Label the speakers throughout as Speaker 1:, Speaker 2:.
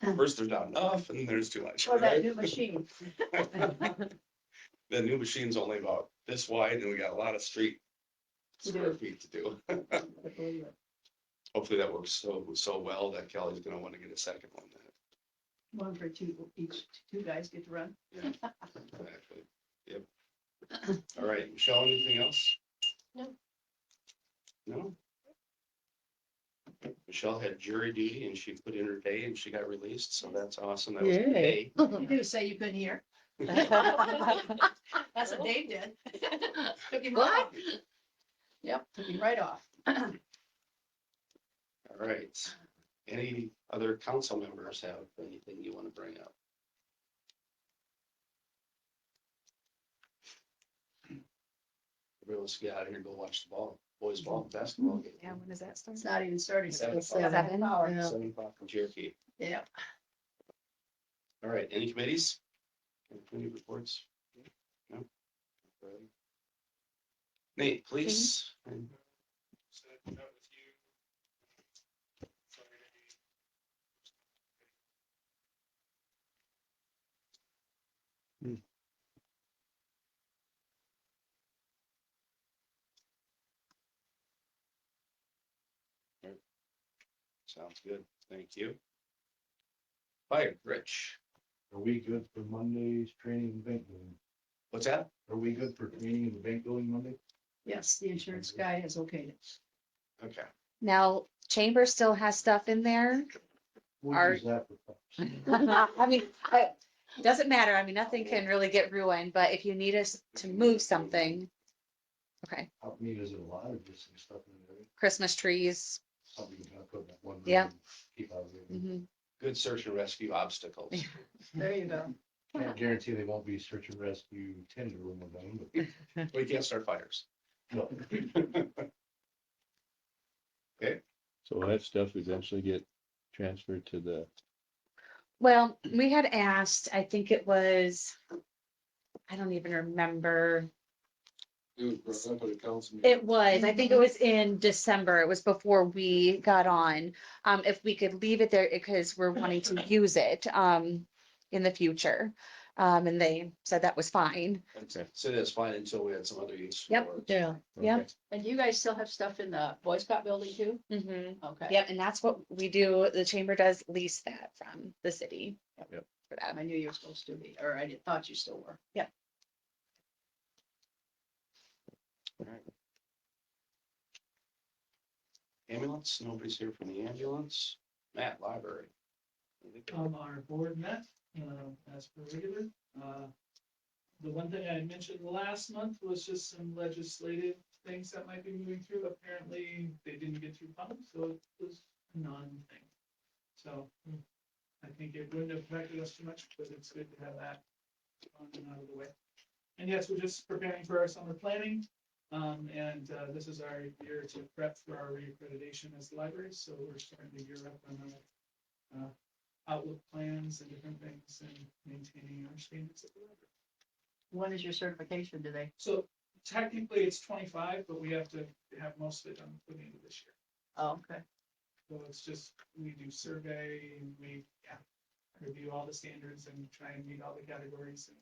Speaker 1: First, there's not enough and there's too much.
Speaker 2: Or that
Speaker 1: right?
Speaker 2: new machine.
Speaker 1: The new machine's only about this wide and we got a lot of street
Speaker 2: To do.
Speaker 1: square feet to do.
Speaker 2: Well,
Speaker 1: Hopefully that works so, so well that Kelly's gonna want to get a second one. then,
Speaker 2: One for two, each two guys get to run.
Speaker 1: Actually, Yep. All right, Michelle, anything else?
Speaker 3: No.
Speaker 1: No? Michelle had jury duty and she put in her day and she got released, so that's awesome. That was a good day.
Speaker 4: Yay.
Speaker 2: You do say you couldn't hear. That's what Dave did. Took him right off. Yep, took him right off.
Speaker 1: All right. Any other council members have anything you want to bring up? Everybody wants to get out of here and go watch the ball, boys ball, basketball game.
Speaker 3: Yeah, when does that start?
Speaker 2: It's not even starting.
Speaker 1: Seven
Speaker 2: It's a half
Speaker 3: o'clock.
Speaker 2: hour.
Speaker 4: Yeah.
Speaker 1: Seven o'clock in Cherokee.
Speaker 2: Yeah.
Speaker 1: All right, any committees? Any reports? No. Nate, please. Hmm.
Speaker 5: said that with you. Sorry to be
Speaker 1: Sounds good. Thank you. Fire, Rich.
Speaker 6: Are we good for Monday's training and bank building?
Speaker 1: What's that?
Speaker 6: Are we good for training and bank building Monday?
Speaker 2: Yes, the insurance guy has okayed it.
Speaker 1: Okay.
Speaker 3: Now, Chamber still has stuff in there.
Speaker 6: What
Speaker 3: Are-
Speaker 6: is that for?
Speaker 3: I mean, I, doesn't matter. I mean, nothing can really get ruined, but if you need us to move something. Okay,
Speaker 6: Help me, is it a lot of this and stuff in there?
Speaker 3: Christmas trees.
Speaker 6: Something you can put in that one. room
Speaker 3: Yeah.
Speaker 6: and Keep out of there.
Speaker 3: mhm.
Speaker 1: Good search and rescue obstacles.
Speaker 2: There you go.
Speaker 6: Can't guarantee they won't be search and rescue tender room or them, but.
Speaker 1: We can't start fires.
Speaker 6: No.
Speaker 7: So will that stuff eventually get transferred to the,
Speaker 3: Well, we had asked, I think it was, I don't even remember.
Speaker 5: It was brought up at a council meeting.
Speaker 3: It was, I think it was in December. It was before we got on. Um, if we could leave it there because we're wanting to use it, um, in the future. Um, and they said that was fine.
Speaker 7: Okay.
Speaker 1: So that's fine until we had some other use.
Speaker 3: Yep.
Speaker 1: for it.
Speaker 4: Yeah.
Speaker 3: Yep.
Speaker 2: And you guys still have stuff in the Boy Scout building too?
Speaker 3: Mm-hmm.
Speaker 2: Okay.
Speaker 3: Yep, and that's what we do, the chamber does lease that from the city.
Speaker 7: Yep.
Speaker 3: For that.
Speaker 2: I knew you were supposed to be, or I did- thought you still were.
Speaker 1: Ambulance, nobody's here from the ambulance. Matt, library.
Speaker 5: Um, our board met, um, as per regular. Uh, The one thing I mentioned last month was just some legislative things that might be moving through. Apparently, they didn't get through public, so it was a non-thing. So I think it wouldn't have affected us too much, but it's good to have that on and out of the way. And yes, we're just preparing for our summer planning. Um, and, uh, this is our year to prep for our reaccreditation as libraries, so we're starting to gear up on that outlook plans and different things and maintaining our standards at the library.
Speaker 2: When is your certification today?
Speaker 5: So technically, it's twenty-five, but we have to have most of it done for the end of this year.
Speaker 2: Oh, okay.
Speaker 5: So it's just, we do survey and we, yeah, review all the standards and try and meet all the categories and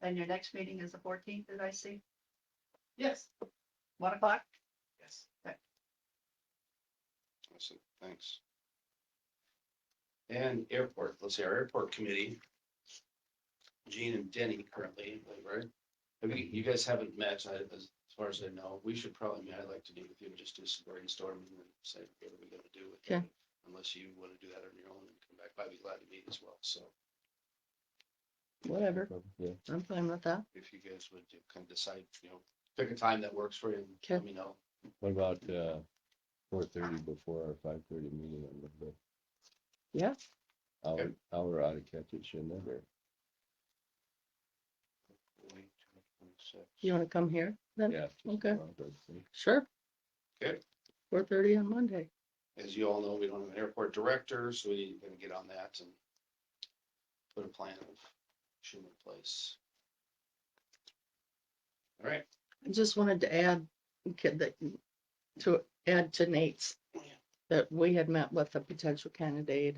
Speaker 2: And your next meeting is the fourteenth, did I see?
Speaker 5: yes,
Speaker 2: One o'clock?
Speaker 5: yes.
Speaker 1: Awesome, thanks. And airport, let's see, our airport committee. Gene and Denny currently, right? Have you, you guys haven't met, I, as far as I know, we should probably, meet. I'd like to meet with you and just do some brainstorming and say, what are we gonna do with it?
Speaker 4: Okay.
Speaker 1: Unless you wanna do that on your own and come back, I'd be glad to meet as well, so
Speaker 4: Whatever.
Speaker 7: yeah,
Speaker 4: I'm fine with that.
Speaker 1: if you guys would uh, kind of decide, you know, pick a time that works for you and let
Speaker 4: Okay.
Speaker 1: me know.
Speaker 7: what about, uh, four thirty before our five thirty meeting on Monday?
Speaker 4: Yeah.
Speaker 7: Hour, hour ought to catch it, shouldn't it, or?
Speaker 4: You want to come here? Then,
Speaker 7: Yeah.
Speaker 4: okay. sure.
Speaker 1: Okay.
Speaker 4: Four thirty on Monday.
Speaker 1: As you all know, we don't have an airport director, so we need to get on that and put a plan of shoe in place. All right,
Speaker 4: I just wanted to add, okay, that- to add to Nate's that we had met with a potential candidate